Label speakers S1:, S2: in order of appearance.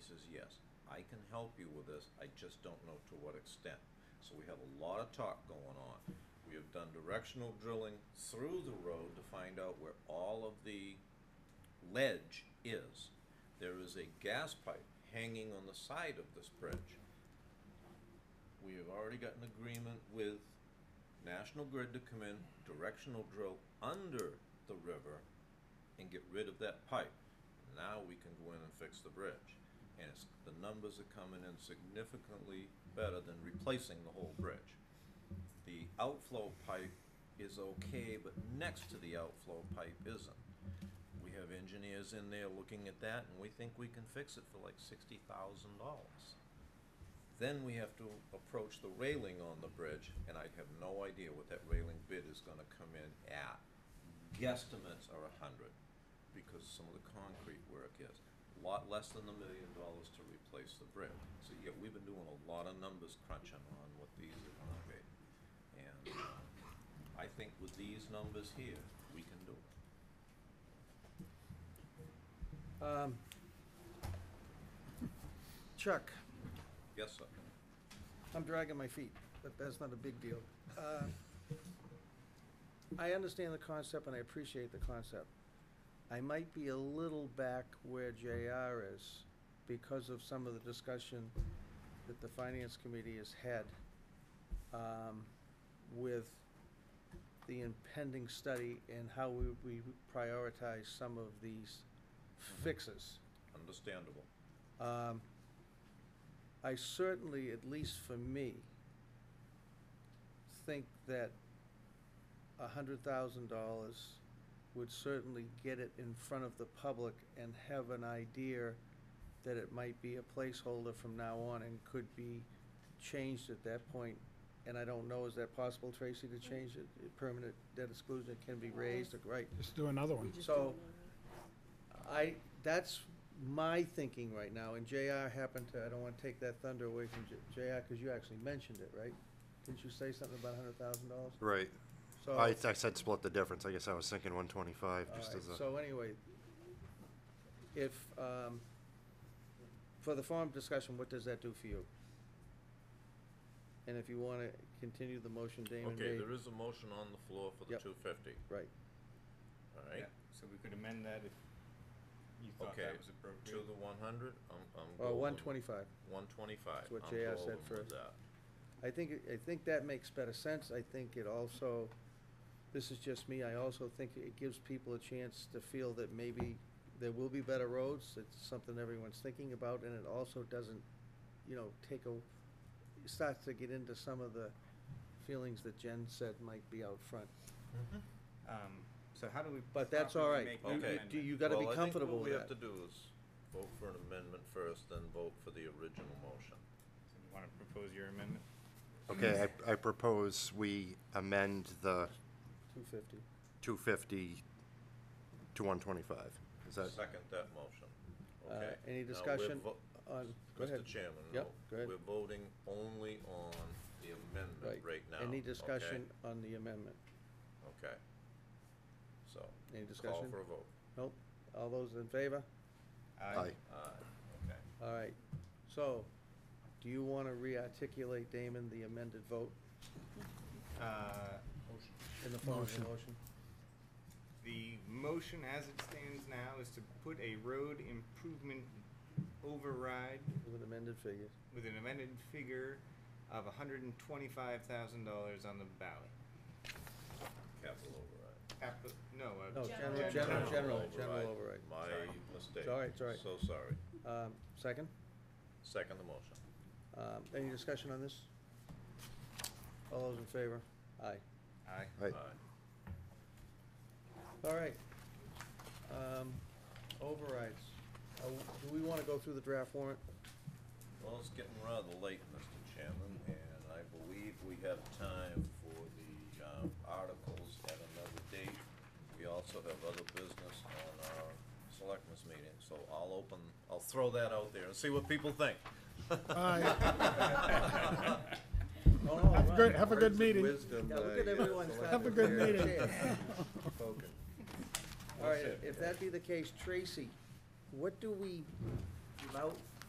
S1: says, yes, I can help you with this, I just don't know to what extent. So we have a lot of talk going on. We have done directional drilling through the road to find out where all of the ledge is. There is a gas pipe hanging on the side of this bridge. We have already got an agreement with National Grid to come in, directional drill under the river and get rid of that pipe. Now we can go in and fix the bridge. And it's, the numbers are coming in significantly better than replacing the whole bridge. The outflow pipe is okay, but next to the outflow pipe isn't. We have engineers in there looking at that, and we think we can fix it for like sixty thousand dollars. Then we have to approach the railing on the bridge, and I have no idea what that railing bid is gonna come in at. Guesstimates are a hundred, because some of the concrete work is. a Lot less than the million dollars to replace the bridge. So, yeah, we've been doing a lot of numbers crunching on what these are gonna be. And uh, I think with these numbers here, we can do it.
S2: Um, Chuck,
S1: Yes, sir.
S2: I'm dragging my feet, but that's not a big deal. Uh, I understand the concept and I appreciate the concept. I might be a little back where JR is because of some of the discussion that the Finance Committee has had um, with the impending study and how we we prioritize some of these fixes.
S1: Understandable.
S2: Um, I certainly, at least for me, think that $100,000 would certainly get it in front of the public and have an idea that it might be a placeholder from now on and could be changed at that point. And I don't know, is that possible, Tracy, to change it, permanent debt exclusion, it can be raised, right?
S3: Just do another one.
S2: So, I, that's my thinking right now, and JR happened to, I don't want to take that thunder away from J- JR, because you actually mentioned it, right? Didn't you say something about hundred thousand dollars?
S4: Right.
S2: So,
S4: I, I said split the difference. I guess I was thinking one twenty-five,
S2: all
S4: just
S2: right,
S4: as a.
S2: so anyway, if, um, for the forum discussion, what does that do for you? And if you want to continue the motion Damon
S1: Okay,
S2: made,
S1: there is a motion on the floor for the
S2: Yep.
S1: two fifty,
S2: right,
S1: all
S5: Yeah,
S1: right?
S5: so we could amend that if you thought
S1: Okay,
S5: that was
S1: to
S5: appropriate.
S1: the one hundred, I'm, I'm.
S2: or Uh, one twenty-five.
S1: One twenty-five.
S2: That's what JR said first. I think, I think that makes better sense. I think it also, this is just me, I also think it gives people a chance to feel that maybe there will be better roads. It's something everyone's thinking about, and it also doesn't, you know, take a, it starts to get into some of the feelings that Jen said might be out front. Mm-hmm.
S5: Um, So how do we?
S2: But that's all
S5: properly
S2: right.
S5: make that
S1: Okay.
S5: amendment?
S2: Do you gotta be comfortable with
S1: What we have to
S2: that.
S1: do is vote for an amendment first, then vote for the original motion.
S5: So You wanna propose your amendment?
S4: Okay, I, I propose we amend the
S2: Two fifty.
S4: two fifty to one twenty-five. Is that,
S1: Second that motion, okay?
S2: Uh,
S1: Now,
S2: any
S1: we're
S2: discussion
S1: vo-
S2: on- go ahead.
S1: Mr. Chairman,
S2: Yep,
S1: no,
S2: go ahead.
S1: we're voting only on the amendment right now.
S2: Any
S1: okay?
S2: discussion on the amendment?
S1: Okay. So.
S2: Any
S1: Call
S2: discussion?
S1: for a vote.
S2: Nope. All those in favor?
S5: Uh,
S4: aye,
S1: Aye, okay.
S2: All right. So, do you want to re-articulate, Damon, the amended vote
S5: Uh,
S2: in the form of a
S3: Motion.
S2: motion?
S5: The motion as it stands now is to put a road improvement override
S2: With an amended figure.
S5: with an amended figure of hundred and twenty-five thousand dollars on the ballot.
S1: Capital override.
S5: Cap- no, uh.
S2: No, general,
S6: General.
S2: general, general,
S1: General
S2: general override.
S1: My
S5: Sorry.
S1: mistake.
S2: It's all right, it's all right.
S1: So sorry.
S2: Um, Second,
S1: Second the motion.
S2: Um, any discussion on this? All those in favor? Aye.
S5: Aye.
S4: aye.
S1: Aye.
S2: All right. Um, Overrides. Uh, Do we want to go through the draft warrant?
S1: Well, it's getting rather late, Mr. Chairman, and I believe we have time for the um, articles at another date. We also have other business on our selectmen's meeting, so I'll open, I'll throw that out there and see what people think.
S3: Aye.
S2: No, no,
S3: Have a good,
S2: Oh, right.
S3: have a good meeting.
S6: Wisdom
S2: Yeah, look
S6: by,
S2: at
S6: uh,
S2: everyone.
S6: Selectman
S3: Have a good
S6: Barrett.
S3: meeting.
S6: Spoken.
S2: All right, if that be the case, Tracy, what do we vote